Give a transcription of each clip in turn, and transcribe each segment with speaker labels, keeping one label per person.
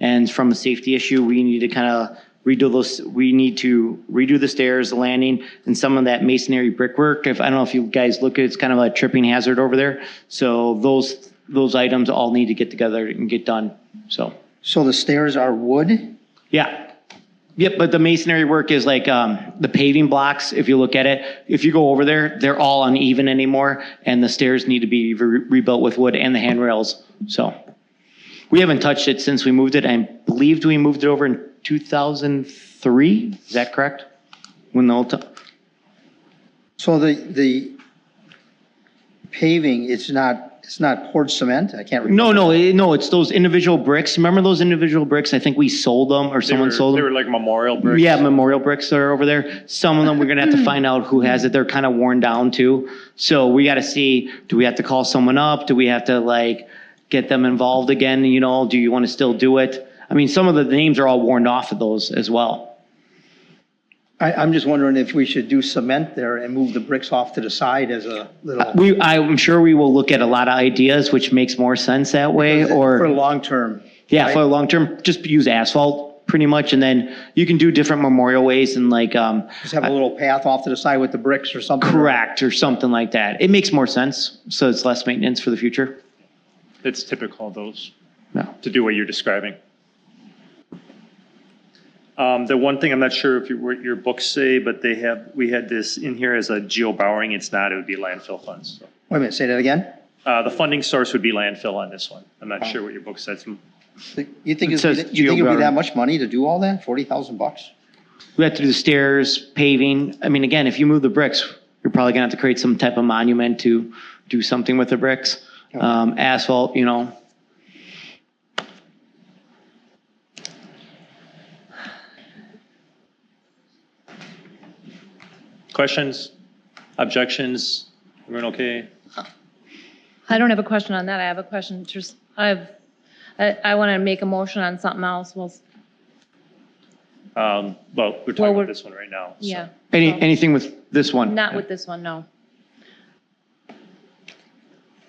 Speaker 1: and from a safety issue, we need to kind of redo those, we need to redo the stairs, the landing, and some of that masonry brickwork. If, I don't know if you guys look, it's kind of a tripping hazard over there. So those, those items all need to get together and get done, so.
Speaker 2: So the stairs are wood?
Speaker 1: Yeah. Yep, but the masonry work is like um, the paving blocks, if you look at it, if you go over there, they're all uneven anymore, and the stairs need to be re- rebuilt with wood and the handrails, so. We haven't touched it since we moved it. I believed we moved it over in 2003, is that correct? When the old, t-
Speaker 2: So the, the paving, it's not, it's not poured cement? I can't remember.
Speaker 1: no, no, eh, no, it's those individual bricks. Remember those individual bricks? I think we sold them, or someone
Speaker 3: were-
Speaker 1: sold them.
Speaker 3: They were like memorial bricks.
Speaker 1: Yeah, memorial bricks are over there. Some of them, we're gonna have to find out who has it. They're kind of worn down too. So we gotta see, do we have to call someone up? Do we have to like get them involved again? You know, do you want to still do it? I mean, some of the names are all worn off of those as well.
Speaker 2: I, I'm just wondering if we should do cement there and move the bricks off to the side as a little,
Speaker 1: We, I'm sure we will look at a lot of ideas, which makes more sense that way,
Speaker 2: for
Speaker 1: or,
Speaker 2: long-term.
Speaker 1: yeah, for long term, just use asphalt pretty much. And then you can do different memorial ways and like, um,
Speaker 2: Just have a little path off to the side with the bricks or something.
Speaker 1: correct or something like that. It makes more sense. So it's less maintenance for the future.
Speaker 3: It's typical of those
Speaker 1: No.
Speaker 3: to do what you're describing. Um, the one thing I'm not sure if you, what your books say, but they have, we had this in here as a geo-bowering. It's not, it would be landfill funds. So,
Speaker 2: Wait a minute, say that again?
Speaker 3: Uh, the funding source would be landfill on this one. I'm not sure what your book says.
Speaker 2: You think,
Speaker 1: It
Speaker 2: it'd be-
Speaker 1: says
Speaker 2: you think it'd be
Speaker 1: geogutter.
Speaker 2: that much money to do all that? Forty thousand bucks?
Speaker 1: We have to do the stairs, paving. I mean, again, if you move the bricks, you're probably gonna have to create some type of monument to do something with the bricks. Um, asphalt, you know,
Speaker 3: Questions? Objections? Everyone okay?
Speaker 4: I don't have a question on that. I have a question just, I've, I, I want to make a motion on something else. Well, s-
Speaker 3: Um, well, we're
Speaker 4: Well,
Speaker 3: talking
Speaker 4: we're-
Speaker 3: about this one right now. so.
Speaker 4: yeah,
Speaker 1: any,
Speaker 4: No.
Speaker 1: anything with this one.
Speaker 4: not with this one, no.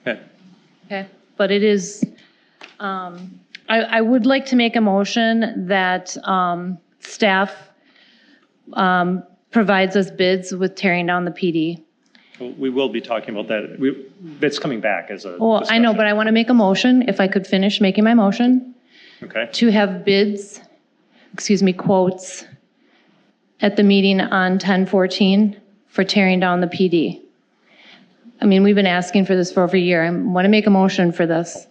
Speaker 3: Okay.
Speaker 4: Okay, but it is, um, I, I would like to make a motion that, um, staff, um, provides us bids with tearing down the PD.
Speaker 3: Well, We will be talking about that. We, that's coming back as a.
Speaker 4: Well, I know, but I want to make a motion, if I could finish making my motion.
Speaker 3: Okay.
Speaker 4: to have bids, excuse me, quotes at the meeting on 1014 for tearing down the PD. I mean, we've been asking for this for over a year. I want to make a motion for this.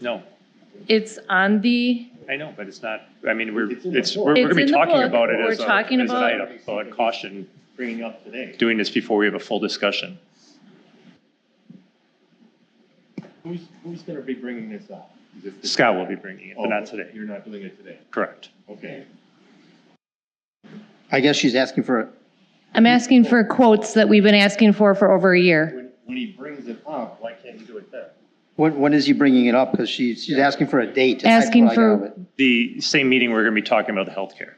Speaker 3: No,
Speaker 4: It's on the,
Speaker 3: I know, but it's not, I mean, we're, it's, we're
Speaker 4: It's
Speaker 3: going to be
Speaker 4: in the
Speaker 3: talking
Speaker 4: book.
Speaker 3: about it
Speaker 4: We're
Speaker 3: as a, as
Speaker 4: talking
Speaker 3: an
Speaker 4: about-
Speaker 3: item. So I caution. Bringing up today. Doing this before we have a full discussion.
Speaker 5: Who's, who's gonna be bringing this up? Is this the-
Speaker 3: Scott will be bringing it, but not
Speaker 5: Oh,
Speaker 3: today.
Speaker 5: You're not doing it today,
Speaker 3: Correct.
Speaker 5: okay.
Speaker 2: I guess she's asking for,
Speaker 4: I'm asking for quotes that we've been asking for for over a year.
Speaker 5: When, when he brings it up, why can't he do it then?
Speaker 2: when, when is he bringing it up? Because she's, she's asking for a date. That's
Speaker 4: Asking
Speaker 2: what I got
Speaker 4: for-
Speaker 2: of it,
Speaker 3: The same meeting, we're going to be talking about the healthcare,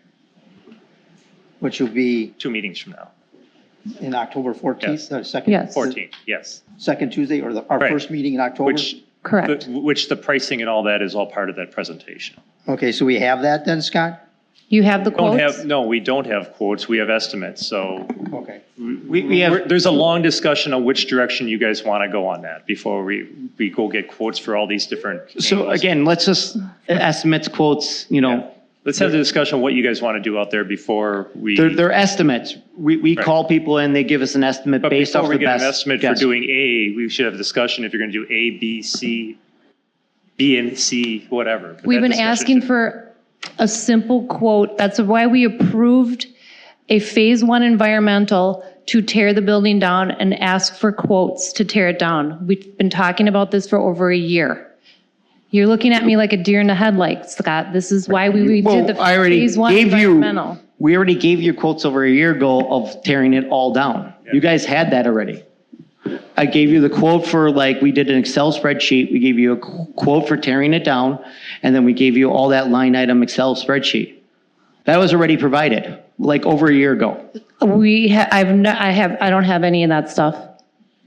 Speaker 2: Which will be
Speaker 3: two meetings from now,
Speaker 2: in October fourteenth,
Speaker 3: Yes.
Speaker 2: the second.
Speaker 4: Yes.
Speaker 3: 14, yes.
Speaker 2: Second Tuesday or the, our
Speaker 3: Right.
Speaker 2: first meeting in October?
Speaker 3: Which,
Speaker 4: Correct.
Speaker 3: the- which the pricing and all that is all part of that presentation.
Speaker 2: Okay, so we have that then, Scott?
Speaker 4: You have the
Speaker 3: Don't have,
Speaker 4: quotes?
Speaker 3: no, we don't have quotes, we have estimates, so
Speaker 2: Okay.
Speaker 1: We, we
Speaker 3: We're-
Speaker 1: have,
Speaker 3: There's a long discussion on which direction you guys want to go on that before we, we go get quotes for all these different.
Speaker 1: so
Speaker 3: angles.
Speaker 1: again, let's just estimates, quotes, you know,
Speaker 3: Let's have the discussion on what you guys want to do out there before we.
Speaker 1: they're, they're estimates. We, we
Speaker 3: Right.
Speaker 1: call people and they give us an estimate
Speaker 3: But
Speaker 1: based off
Speaker 3: before we
Speaker 1: the
Speaker 3: get an
Speaker 1: best.
Speaker 3: estimate for
Speaker 1: guess.
Speaker 3: doing A, we should have a discussion if you're going to do A, B, C, B and C, whatever. But
Speaker 4: We've
Speaker 3: that
Speaker 4: been
Speaker 3: discussion
Speaker 4: asking
Speaker 3: should-
Speaker 4: for a simple quote. That's why we approved a Phase One environmental to tear the building down and ask for quotes to tear it down. We've been talking about this for over a year. You're looking at me like a deer in the headlights, Scott. This is why we we did the
Speaker 1: Well, I already
Speaker 4: Phase One
Speaker 1: gave you,
Speaker 4: environmental.
Speaker 1: we already gave you quotes over a year ago of tearing it all down. You guys had that already. I gave you the quote for like, we did an Excel spreadsheet, we gave you a qu- quote for tearing it down, and then we gave you all that line item Excel spreadsheet. That was already provided, like over a year ago.
Speaker 4: We, ha- I've, no- I have, I don't have any of that stuff.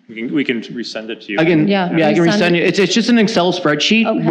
Speaker 3: We can, we can resend it to you.
Speaker 1: Again,
Speaker 4: Yeah,
Speaker 1: yeah, I can
Speaker 4: resend
Speaker 1: resend
Speaker 4: it.
Speaker 1: you, it's, it's just an Excel spreadsheet
Speaker 4: Okay.